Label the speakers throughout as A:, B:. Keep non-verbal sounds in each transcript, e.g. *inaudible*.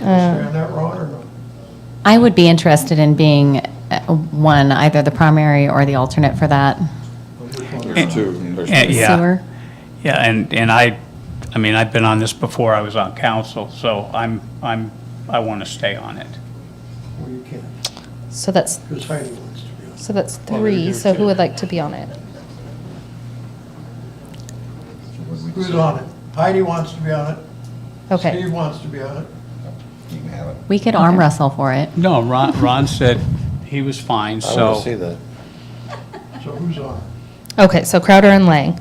A: Uh,
B: Am that wrong or no?
C: I would be interested in being uh, one, either the primary or the alternate for that
D: There's two. There's
E: Eh,
D: two.
E: Yeah.
C: sewer.
E: Yeah, and, and I, I mean, I've been on this before I was on council, so I'm, I'm, I want to stay on it.
B: Well, you can't,
A: So that's,
B: because Heidi wants to be on.
A: so that's
B: Well, we
A: three,
B: do
A: so
B: too.
A: who would like to be on it?
B: it. Who's on it? Heidi wants to be on it.
A: Okay,
B: Steve wants to be on it.
F: You can have it.
C: We could arm wrestle for it.
E: No, Ron, Ron said he was fine,
F: I want to see
E: so,
F: that.
B: So who's on it?
A: okay, so Crowder and Lang.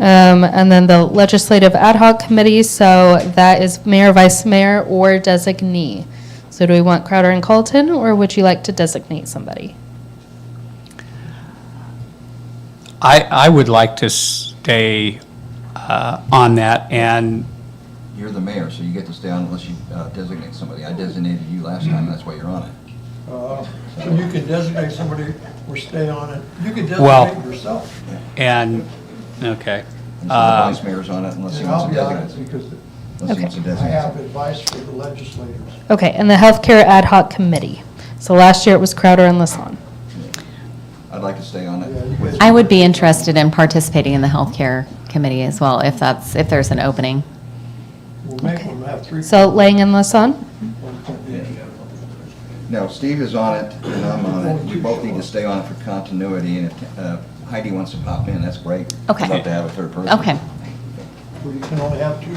A: Um, and then the legislative ad hoc committee, so that is mayor, vice mayor, or designee. So do we want Crowder and Colton, or would you like to designate somebody?
E: I, I would like to stay uh, on that, and,
G: You're the mayor, so you get to stay on unless you uh, designate somebody. I designated you last
F: Mm-hmm.
G: time, that's why you're on it.
B: Uh, So you can designate somebody or stay on it. You can
E: Well-
B: designate yourself.
E: and, okay.
G: And so the
E: Uh,
G: vice mayor's on it unless he
B: And
G: wants
B: I'll
G: to
B: be on it
G: designate.
B: because
G: Unless he
A: Okay.
G: wants to
B: I have
G: designate.
B: advice for the legislators.
A: Okay, and the healthcare ad hoc committee. So last year it was Crowder and Lassonde.
G: I'd like to stay on
B: Yeah,
G: it.
B: you
G: with-
C: I would be interested in participating in the healthcare committee as well, if that's, if there's an opening.
B: We'll make
A: Okay.
B: them have three.
A: So Lang and Lassonde?
B: one point each.
G: No, Steve is on it and I'm on it. We both need to stay on it for continuity and if uh, Heidi wants to pop in, that's great.
C: Okay.
G: I'd love to have a third person.
C: Okay.
B: Where you can only have two.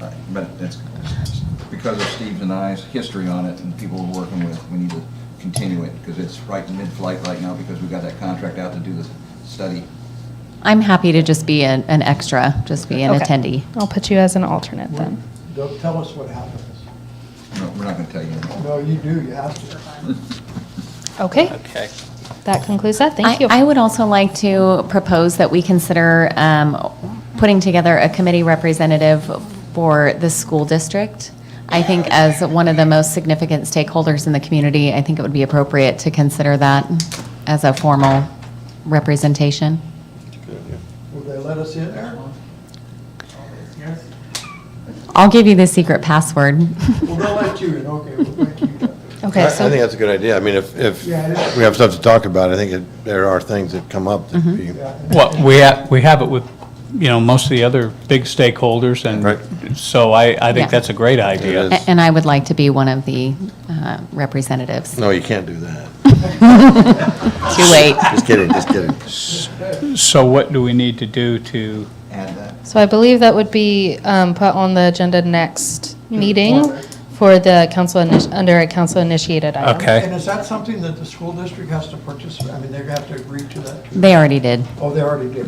G: Right, But that's, because of Steve's and I's history on it and people we're working with, we need to continue it because it's right in mid-flight right now because we've got that contract out to do the study.
C: I'm happy to just be an, an extra, just be an
A: Okay.
C: attendee.
A: I'll put you as an alternate then.
B: Don't tell us what happens.
G: No, we're not going to tell you anymore.
B: No, you do, you have to.
A: Okay,
E: Okay.
A: that concludes that.
C: I-
A: Thank you.
C: I would also like to propose that we consider um, putting together a committee representative for the school district. I think as one of the most significant stakeholders in the community, I think it would be appropriate to consider that as a formal representation.
B: Will they let us in there?
C: I'll give you the secret password.
B: Well, they'll let you in, okay, well, thank you.
A: Okay,
F: I- I think
A: so,
F: that's a good idea. I mean, if, if
B: Yeah, it is.
F: we have stuff to talk about, I think it- there are things that come up that you,
B: Yeah, and
E: Well, we have, we have it with, you know, most of the other big stakeholders,
F: Right.
E: and so I, I
C: Yeah.
E: think that's a great idea.
C: *laughs*
F: is.
C: A- And I would like to be one of the uh, representatives.
F: no, you can't do that.
C: Too late.
F: Just kidding, just
E: *laughs*
F: kidding.
E: So what do we need to do to,
G: *laughs* Add that.
A: so I believe that would be um, put on the agenda next meeting for the council, initi- under a council-initiated item.
E: okay?
B: And is that something that the school district has to participate, I mean, they have to agree to that? too?
C: They already did.
B: Oh, they already did.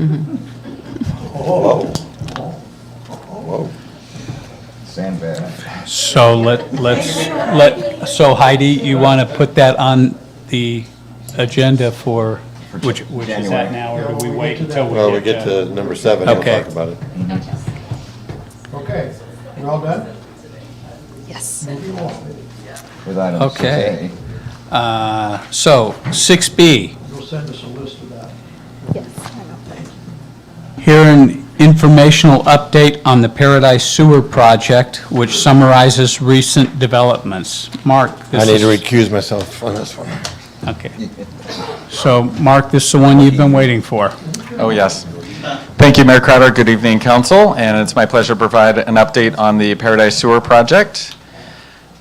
B: Oh,
G: Sandbag.
E: So let, let's, let, so Heidi, you want to put that on the agenda for, which, which is
G: January.
E: that now, or do we
B: Yeah, we'll
E: wait
B: get to
E: until
B: that.
E: we get
F: Well, we get to number seven, and we'll
E: Okay.
F: talk about it.
B: okay, we're all done?
A: Yes.
B: Moving on.
G: With item
E: Okay.
G: 6A.
E: Uh, So, 6B,
B: You'll send us a list of that.
E: here an informational update on the Paradise Sewer Project, which summarizes recent developments. Mark, this
F: I need to
E: is-
F: recuse myself on this one.
E: Okay. So, Mark, this is the one you've been waiting for.
H: Oh, yes. Thank you, Mayor Crowder. Good evening, council, and it's my pleasure to provide an update on the Paradise Sewer Project.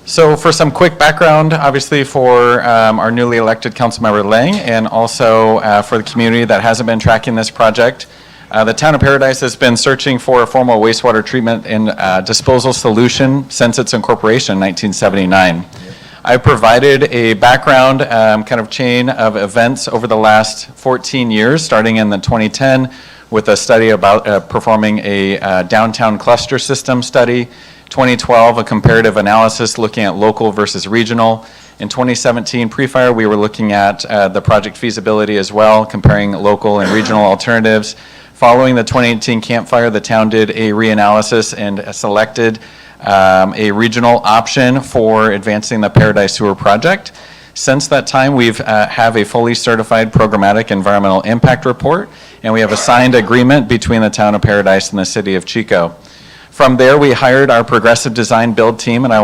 H: So for some quick background, obviously for um, our newly elected councilmember Lang and also uh, for the community that hasn't been tracking this project, uh, the town of Paradise has been searching for a formal wastewater treatment and uh, disposal solution since its incorporation in 1979. I provided a background um, kind of chain of events over the last 14 years, starting in the 2010 with a study about uh, performing a uh, downtown cluster system study, 2012, a comparative analysis looking at local versus regional. In 2017, pre-fire, we were looking at uh, the project feasibility as well, comparing local and regional alternatives. Following the 2018 campfire, the town did a reanalysis and selected um, a regional option for advancing the Paradise Sewer Project. Since that time, we've, uh, have a fully certified programmatic environmental impact report, and we have a signed agreement between the town of Paradise and the city of Chico. From there, we hired our progressive design build team, and I